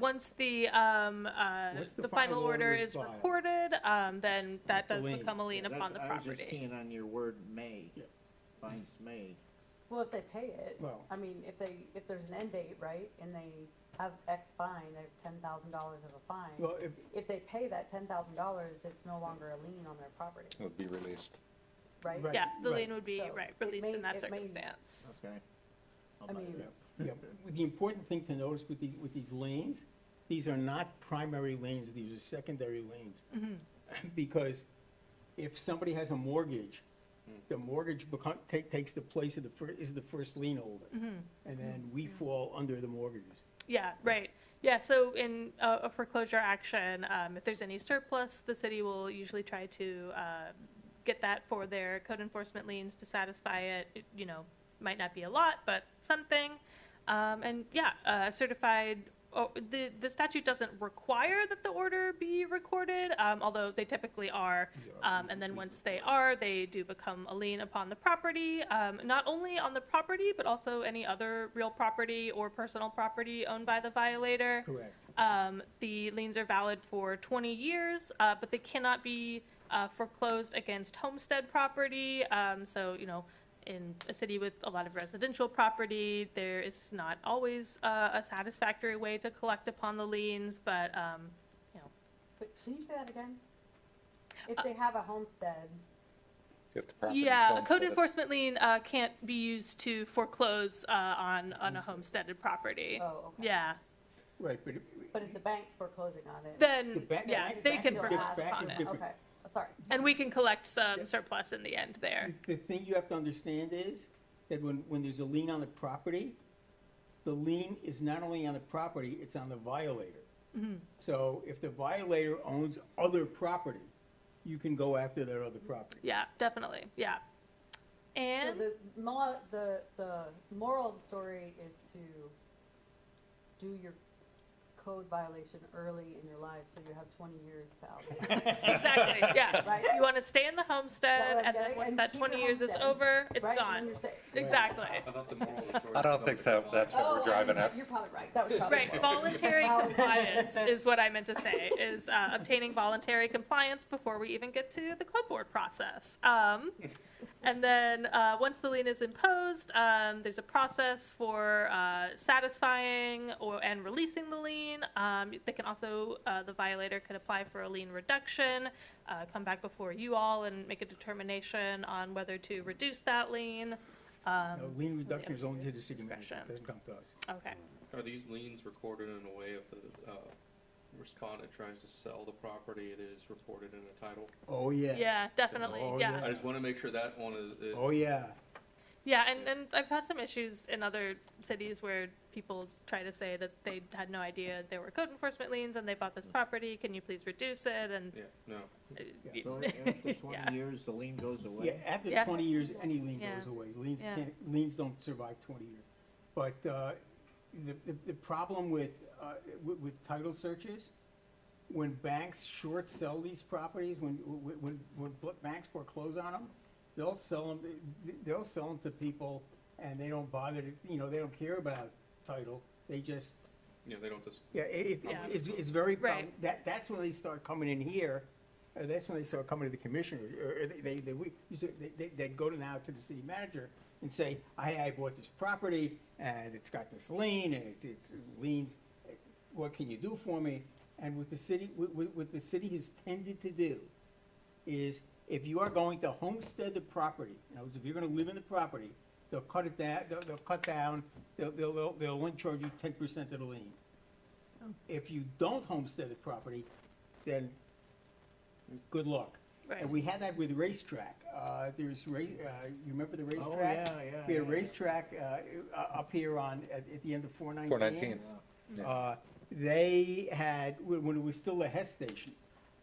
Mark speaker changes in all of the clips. Speaker 1: Once the, um, uh,
Speaker 2: Once
Speaker 1: the final order is
Speaker 2: filed.
Speaker 1: recorded, um, then that
Speaker 3: That's a
Speaker 1: does
Speaker 3: lien.
Speaker 1: become a lien
Speaker 3: Yeah,
Speaker 1: upon the
Speaker 3: that's- I was just
Speaker 1: property.
Speaker 3: keying on your word may.
Speaker 2: Yeah.
Speaker 3: Finds may.
Speaker 4: Well, if they pay it,
Speaker 2: Well-
Speaker 4: I mean, if they, if there's an end date, right, and they have X fine, they have ten thousand dollars of a fine.
Speaker 2: Well, if,
Speaker 4: If they pay that ten thousand dollars, it's no longer a lien on their property,
Speaker 5: It would be released.
Speaker 4: right?
Speaker 2: Right.
Speaker 1: Yeah, the
Speaker 2: right.
Speaker 1: lien would be,
Speaker 4: So
Speaker 1: right,
Speaker 4: it
Speaker 1: released
Speaker 4: may-
Speaker 1: in that
Speaker 4: it may-
Speaker 1: circumstance.
Speaker 3: Okay. I'll
Speaker 4: I
Speaker 3: buy
Speaker 4: mean-
Speaker 3: that.
Speaker 2: yeah, yeah. The important thing to notice with these, with these lanes, these are not primary lanes, these are secondary lanes.
Speaker 1: Mm-hmm.
Speaker 2: Because if somebody has a mortgage, the mortgage become, take, takes the place of the fir, is the first lien holder.
Speaker 1: Mm-hmm.
Speaker 2: And then we fall under the mortgages.
Speaker 1: Yeah, right. Yeah, so in uh, a foreclosure action, um, if there's any surplus, the city will usually try to uh, get that for their code enforcement liens to satisfy it. It, You know, might not be a lot, but something. Um, and yeah, uh, certified. Oh, the the statute doesn't require that the order be recorded, um, although they typically are. Um, and then once they are, they do become a lien upon the property, um, not only on the property, but also any other real property or personal property owned by the violator.
Speaker 2: Correct.
Speaker 1: Um, the liens are valid for 20 years, uh, but they cannot be uh, foreclosed against homestead property. Um, so, you know, in a city with a lot of residential property, there is not always uh, a satisfactory way to collect upon the liens, but, um, you know,
Speaker 4: But can you say that again?
Speaker 1: Uh,
Speaker 4: If they have a homestead,
Speaker 5: If the property is
Speaker 1: Yeah, a code
Speaker 5: homesteaded.
Speaker 1: enforcement lien uh, can't be used to foreclose uh, on, on
Speaker 2: Mm.
Speaker 1: a homesteaded property.
Speaker 4: oh, okay.
Speaker 1: Yeah,
Speaker 2: Right, but. it-
Speaker 4: But if the bank's foreclosing on it.
Speaker 2: The
Speaker 1: then,
Speaker 2: back-
Speaker 1: yeah,
Speaker 2: back-
Speaker 1: they
Speaker 2: back
Speaker 1: can
Speaker 2: is
Speaker 4: you'll
Speaker 2: different.
Speaker 1: foreclose
Speaker 4: ask-
Speaker 2: back
Speaker 1: upon
Speaker 2: is
Speaker 1: it.
Speaker 2: different.
Speaker 4: Okay, sorry.
Speaker 1: And we can collect some
Speaker 2: Yeah.
Speaker 1: surplus in the end there.
Speaker 2: The thing you have to understand is that when, when there's a lien on the property, the lien is not only on the property, it's on the violator.
Speaker 1: Mm-hmm.
Speaker 2: So if the violator owns other property, you can go after that other property.
Speaker 1: Yeah, definitely, yeah.
Speaker 4: So
Speaker 1: And,
Speaker 4: the mo the, the moral of the story is to do your code violation early in your life, so you have twenty years to out.
Speaker 1: exactly, yeah.
Speaker 4: Right?
Speaker 1: You want to stay in the
Speaker 4: Yeah,
Speaker 1: homestead,
Speaker 4: like,
Speaker 1: and
Speaker 4: yeah,
Speaker 1: then once
Speaker 4: and
Speaker 1: that
Speaker 4: keep
Speaker 1: 20
Speaker 4: your
Speaker 1: years is
Speaker 4: homestead.
Speaker 1: over, it's
Speaker 4: Right, when
Speaker 1: gone.
Speaker 4: you're safe.
Speaker 1: Exactly.
Speaker 6: I thought the moral of the story
Speaker 5: I
Speaker 6: was
Speaker 5: don't think so.
Speaker 6: compliance.
Speaker 5: That's what we're driving at.
Speaker 4: Oh, You're probably right, that was probably.
Speaker 1: Right,
Speaker 4: right.
Speaker 1: voluntary
Speaker 4: Well-
Speaker 1: compliance is what I meant to say, is uh, obtaining voluntary compliance before we even get to the code board process. Um, And then, uh, once the lien is imposed, um, there's a process for uh, satisfying or, and releasing the lien. Um, They can also, uh, the violator could apply for a lien reduction, uh, come back before you all and make a determination on whether to reduce that lien.
Speaker 2: Now,
Speaker 1: Um,
Speaker 2: lien reduction is only to the city manager,
Speaker 1: Discretion.
Speaker 2: it doesn't come to us.
Speaker 1: Okay,
Speaker 6: Are these liens recorded in a way if the, uh, respondent tries to sell the property, it is reported in a title?
Speaker 2: Oh, yeah.
Speaker 1: yeah, definitely,
Speaker 2: Oh,
Speaker 1: yeah.
Speaker 2: yeah.
Speaker 6: I just wanna make sure that one is, is-
Speaker 2: Oh, yeah.
Speaker 1: Yeah, and, and I've had some issues in other cities where people try to say that they had no idea there were code enforcement liens and they bought this property, can you please reduce it, and.
Speaker 6: yeah, no.
Speaker 1: uh,
Speaker 2: Yeah.
Speaker 3: So
Speaker 1: Yeah.
Speaker 3: after twenty years, the lien goes away?
Speaker 2: Yeah, after
Speaker 1: Yeah.
Speaker 2: twenty years, any lien
Speaker 1: Yeah.
Speaker 2: goes away. Liens
Speaker 1: Yeah.
Speaker 2: can't, liens don't survive twenty years. But, uh, the, the, the problem with, uh, with, with title searches, when banks short sell these properties, when, when, when- when bl- banks foreclose on them, they'll sell them, they'll sell them to people and they don't bother to, you know, they don't care about title. They just
Speaker 6: Yeah, they don't just,
Speaker 2: yeah, it, it-
Speaker 1: Yeah.
Speaker 2: it's, it's very, prob-
Speaker 1: Right.
Speaker 2: that, that's when they start coming in here, uh, that's when they start coming to the commissioner, or or they- they, they, we, you said- they, they, they'd go to now to the city manager and say, I, I bought this property, and it's got this lien, and it's, it's liens, what can you do for me? And what the city, what, what what the city has tended to do is, if you are going to homestead the property, in other words, if you're gonna live in the property, they'll cut it down, they'll, they'll cut down, they'll, they'll, they'll, they'll only charge you ten percent of the lien if you don't homestead the property, then good luck.
Speaker 1: Right.
Speaker 2: And we had that with racetrack. Uh, there's ra- uh, you remember the racetrack?
Speaker 3: Oh, yeah, yeah,
Speaker 2: We had a
Speaker 3: yeah.
Speaker 2: racetrack, uh, uh, up here on, at, at the end of four nineteen.
Speaker 5: Four nineteen. yeah.
Speaker 2: Uh, they had, when when it was still a Hess station,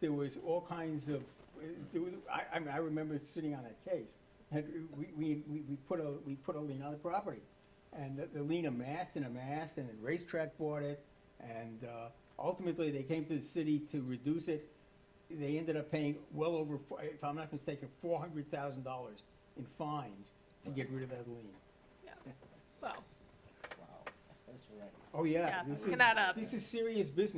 Speaker 2: there was all kinds of, there was, I, I mean, I remember sitting on that case. Had, we, we, we, we put a, we put a lien on the property. And the, the lien amassed and amassed, and then racetrack bought it, and, uh, ultimately, they came to the city to reduce it. They ended up paying well over, four- if I'm not mistaken, four hundred thousand dollars in fines to get rid of that lien.
Speaker 1: Well,
Speaker 3: Wow, that's right.
Speaker 2: Oh, yeah.
Speaker 1: Yeah,
Speaker 2: this
Speaker 1: look
Speaker 2: is-
Speaker 1: that up.
Speaker 2: This is serious business.